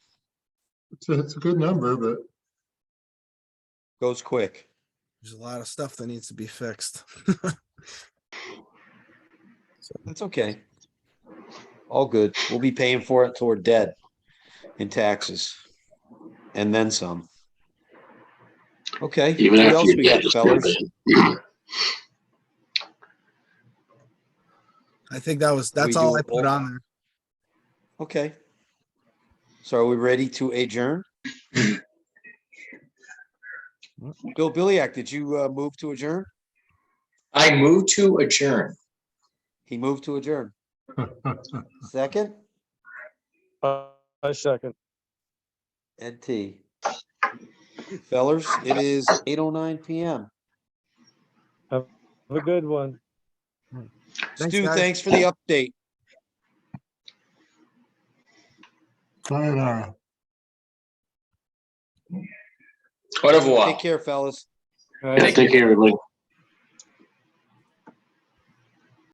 It's a, it's a good number, but Goes quick. There's a lot of stuff that needs to be fixed. That's okay. All good. We'll be paying for it till we're dead in taxes. And then some. Okay. Even what after else you're we dead, got, just fellas? remember it. I think that was, that's do all a I put roll? on there. Okay. So are we ready to adjourn? Bill Billyak, did you uh, move to adjourn? I move to adjourn. He moved to adjourn. Second, Uh, I second. Ed T. Fellers, it is eight oh nine PM. Have a good one. Thanks, Stu, guys. thanks for the update. sayonara. Au revoir. Take care, fellas. All right. Take care, everybody.